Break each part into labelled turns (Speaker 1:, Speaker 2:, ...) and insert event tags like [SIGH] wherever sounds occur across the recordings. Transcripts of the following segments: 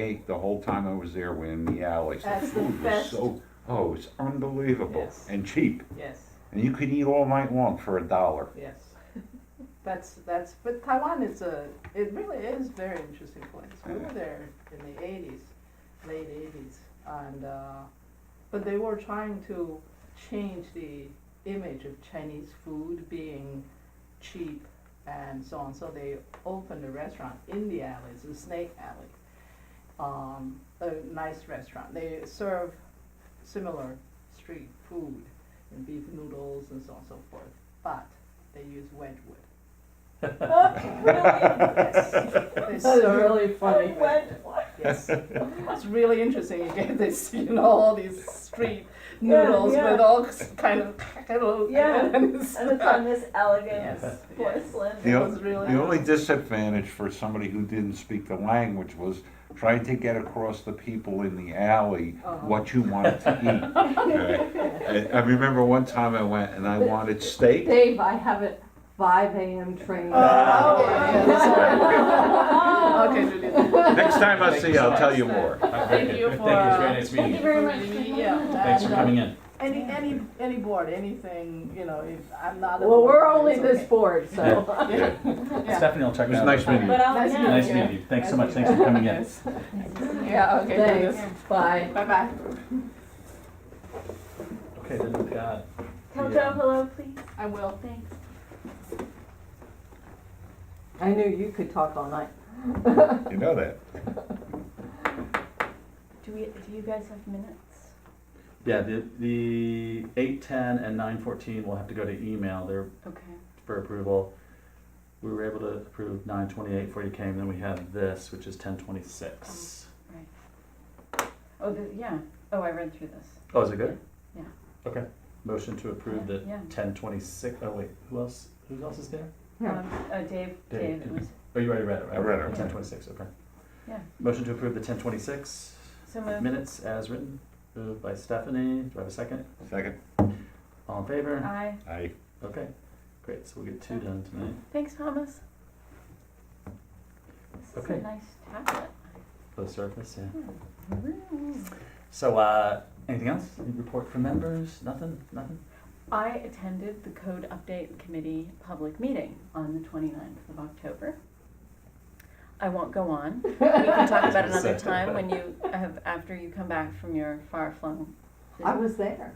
Speaker 1: ate the whole time I was there, we were in the alleys.
Speaker 2: That's the
Speaker 1: food was
Speaker 2: best.
Speaker 1: So, oh, it's unbelievable
Speaker 2: Yes.
Speaker 1: and cheap,
Speaker 2: Yes,
Speaker 1: and you could eat all night long for a dollar.
Speaker 2: yes. [LAUGHS] That's, that's, but Taiwan is a, it really is very interesting place. We were there in the eighties, late eighties, and, uh, but they were trying to change the image of Chinese food being cheap and so on. So they opened a restaurant in the alleys, the Snake Alley. Um, a nice restaurant. They serve similar street food and beef noodles and so on and so forth, but they use Wedgwood. They
Speaker 3: That is
Speaker 2: serve-
Speaker 3: really
Speaker 2: [LAUGHS]
Speaker 3: funny.
Speaker 2: Yes, it's really interesting. You get this, you know, all these street noodles
Speaker 3: Yeah, yeah.
Speaker 2: with all s- kind of kettle.
Speaker 3: Yeah,
Speaker 2: and it's-
Speaker 3: And
Speaker 2: [LAUGHS]
Speaker 3: it's on this elegant
Speaker 2: Yes, yes.
Speaker 3: porcelain.
Speaker 1: The, o-
Speaker 2: was really
Speaker 1: the only
Speaker 2: nice.
Speaker 1: disadvantage for somebody who didn't speak the language was trying to get across the people in the alley
Speaker 2: Oh.
Speaker 1: what you wanted to eat.
Speaker 2: [LAUGHS]
Speaker 1: okay? I, I remember one time I went and I wanted steak.
Speaker 4: Dave, I have a five AM train.
Speaker 2: Oh,
Speaker 4: [LAUGHS]
Speaker 2: okay,
Speaker 4: Oh.
Speaker 2: yeah, sorry. Okay, Julie.
Speaker 1: Next time
Speaker 2: [LAUGHS]
Speaker 1: I see you, I'll tell you more.
Speaker 2: Thank you for,
Speaker 5: Thank you, it's
Speaker 2: uh,
Speaker 5: very nice meeting you.
Speaker 4: very much.
Speaker 2: Yeah.
Speaker 5: Thanks for
Speaker 2: and, uh,
Speaker 5: coming in.
Speaker 2: Any, any, any board, anything, you know, if I'm not. a
Speaker 4: Well, we're
Speaker 2: board,
Speaker 4: only
Speaker 2: it's
Speaker 4: this
Speaker 2: okay.
Speaker 4: board, so.
Speaker 2: Yeah. [LAUGHS] Yeah.
Speaker 5: Stephanie will check
Speaker 1: It
Speaker 5: it
Speaker 1: was
Speaker 5: out.
Speaker 1: nice meeting you.
Speaker 3: But I'll,
Speaker 2: Nice
Speaker 3: yeah.
Speaker 5: Nice meeting you. Thanks so much. Thanks for coming in.
Speaker 2: Yes. Yeah, okay. do this.
Speaker 4: Thanks, bye.
Speaker 2: Bye-bye.
Speaker 5: Okay, then oh, we've got.
Speaker 3: Tell
Speaker 5: the,
Speaker 3: Joe
Speaker 5: um,
Speaker 3: hello, please.
Speaker 2: I will.
Speaker 3: Oh, Thanks.
Speaker 4: I knew you could talk all night.
Speaker 1: You know that.
Speaker 3: Do we, do you guys have minutes?
Speaker 5: Yeah, the, the eight, ten, and nine, fourteen will have to go to email. They're
Speaker 3: Okay.
Speaker 5: for approval. We were able to approve nine twenty-eight before you came, then we have this, which is ten twenty-six.
Speaker 3: Oh, the, yeah. Oh, I read through this.
Speaker 5: Oh, is it good?
Speaker 3: Yeah.
Speaker 5: Okay. Motion to approve the
Speaker 3: Yeah.
Speaker 5: ten twenty-six, oh wait, who else, who else is there?
Speaker 4: Yeah.
Speaker 3: Um, uh, Dave,
Speaker 5: Dave
Speaker 3: Dave, it
Speaker 5: did.
Speaker 3: was,
Speaker 5: Oh, you already read it, right?
Speaker 1: I read it.
Speaker 5: Ten twenty-six, okay.
Speaker 3: Yeah.
Speaker 5: Motion to approve the ten twenty-six
Speaker 3: so moved.
Speaker 5: minutes as written, moved by Stephanie. Do I have a second?
Speaker 1: Second.
Speaker 5: All in favor?
Speaker 3: Aye.
Speaker 1: I
Speaker 5: Okay, great, so we'll get two done tonight.
Speaker 3: Thanks, Thomas. This is a
Speaker 5: Okay.
Speaker 3: nice tablet.
Speaker 5: For the surface, yeah.
Speaker 3: Ooh.
Speaker 5: So, uh, anything else? Any report from members? Nothing? Nothing?
Speaker 3: I attended the Code Update Committee public meeting on the 29th of October. I won't go on. We can talk [LAUGHS] about it another time when you have, after you come back from your far-flung.
Speaker 4: I was there.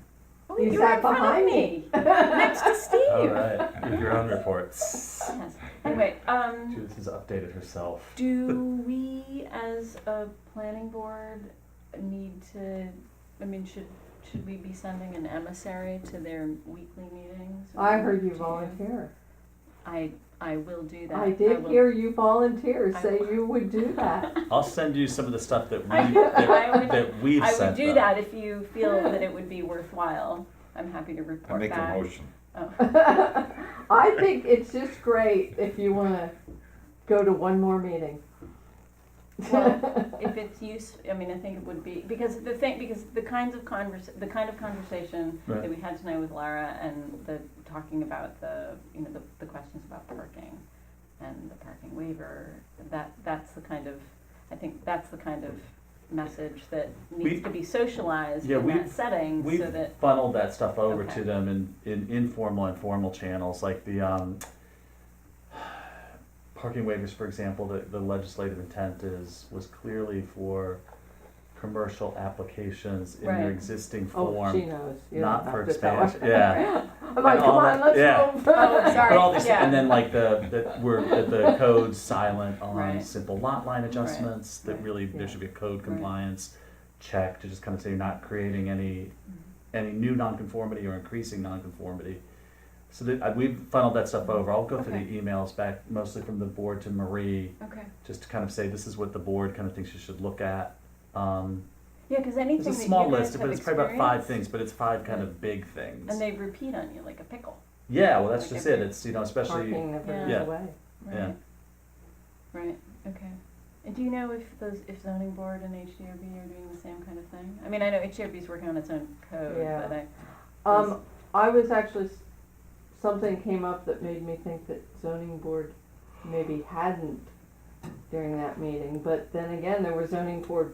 Speaker 3: Oh,
Speaker 4: You
Speaker 3: you were
Speaker 4: sat
Speaker 3: in front
Speaker 4: behind
Speaker 3: of me, next to
Speaker 5: All
Speaker 3: Steve.
Speaker 5: right, [LAUGHS] with your own reports.
Speaker 3: Yes. [LAUGHS] Anyway, um,
Speaker 5: Judith has updated herself.
Speaker 3: do we as a planning board need to, I mean, should, should we be sending an emissary to their weekly meetings?
Speaker 4: I heard you
Speaker 3: Do
Speaker 4: volunteer.
Speaker 3: I, I will do that.
Speaker 4: I did
Speaker 3: will-
Speaker 4: hear you volunteer
Speaker 3: I
Speaker 4: say
Speaker 3: will.
Speaker 4: you would [LAUGHS] do that.
Speaker 5: I'll send you some of the stuff that we
Speaker 3: I- [LAUGHS] I
Speaker 5: that,
Speaker 3: would-
Speaker 5: that we've
Speaker 3: I would
Speaker 5: sent
Speaker 3: do
Speaker 5: them.
Speaker 3: that if you feel that it would be worthwhile. I'm happy to
Speaker 1: I
Speaker 3: report
Speaker 1: make a
Speaker 3: back.
Speaker 1: motion.
Speaker 4: I think it's just great if you wanna go to one more meeting.
Speaker 3: Well, if it's use, I mean, I think it would be because the thing, because the kinds of convers, the kind of conversation
Speaker 5: Right.
Speaker 3: that we had tonight with Lara and the talking about the, you know, the, the questions about parking and the parking waiver. That that's the kind of, I think that's the kind of message that needs
Speaker 5: We-
Speaker 3: to be socialized
Speaker 5: Yeah,
Speaker 3: in
Speaker 5: we-
Speaker 3: that setting
Speaker 5: we
Speaker 3: so that
Speaker 5: funneled that stuff over
Speaker 3: Okay.
Speaker 5: to them in, in informal and formal channels like the um, parking waivers for example the, the legislative intent is was clearly for commercial applications in their
Speaker 3: Right.
Speaker 5: existing
Speaker 4: Oh, she
Speaker 5: form
Speaker 4: knows. You don't
Speaker 5: not
Speaker 4: have
Speaker 5: for
Speaker 4: to tell her.
Speaker 5: expansion
Speaker 4: [LAUGHS]
Speaker 5: yeah
Speaker 4: I'm like,
Speaker 5: And all
Speaker 4: come on,
Speaker 5: that-
Speaker 4: let's
Speaker 5: yeah.
Speaker 4: go.
Speaker 3: Oh, sorry.
Speaker 5: but all these
Speaker 3: Yeah.
Speaker 5: and then like the that we're that the code's silent on
Speaker 3: Right.
Speaker 5: simple lot line adjustments that
Speaker 3: Right.
Speaker 5: really
Speaker 4: Yeah.
Speaker 5: there should be a code
Speaker 3: Right.
Speaker 5: compliance check to just kind of say you're not creating any
Speaker 3: Mm-hmm.
Speaker 5: any new nonconformity or increasing nonconformity. So that, uh, we've funneled that stuff over. I'll go through the emails back mostly from the board to Marie,
Speaker 3: Okay.
Speaker 5: just to kind of say this is what the board kind of thinks you should look at. Um,
Speaker 3: Yeah, because anything
Speaker 5: it's a
Speaker 3: that
Speaker 5: small
Speaker 3: you guys
Speaker 5: list,
Speaker 3: have
Speaker 5: but it's probably about five
Speaker 3: experienced, Mm-hmm.
Speaker 5: things, but it's five kind of big things.
Speaker 3: And they repeat on you like a pickle.
Speaker 5: yeah, well, that's
Speaker 3: like
Speaker 5: just it.
Speaker 3: every-
Speaker 5: It's you know especially
Speaker 4: Parking never
Speaker 3: Yeah.
Speaker 4: goes
Speaker 5: Yeah.
Speaker 4: away.
Speaker 3: Right.
Speaker 5: Yeah.
Speaker 3: Right. Okay. And do you know if those if zoning board and HDRB are doing the same kind of thing? I mean, I know HDRB is working on its own code,
Speaker 4: Yeah.
Speaker 3: but I
Speaker 4: Um, I was actually, s- something came up that made me think that zoning board maybe hadn't during that meeting, but then again, there were zoning board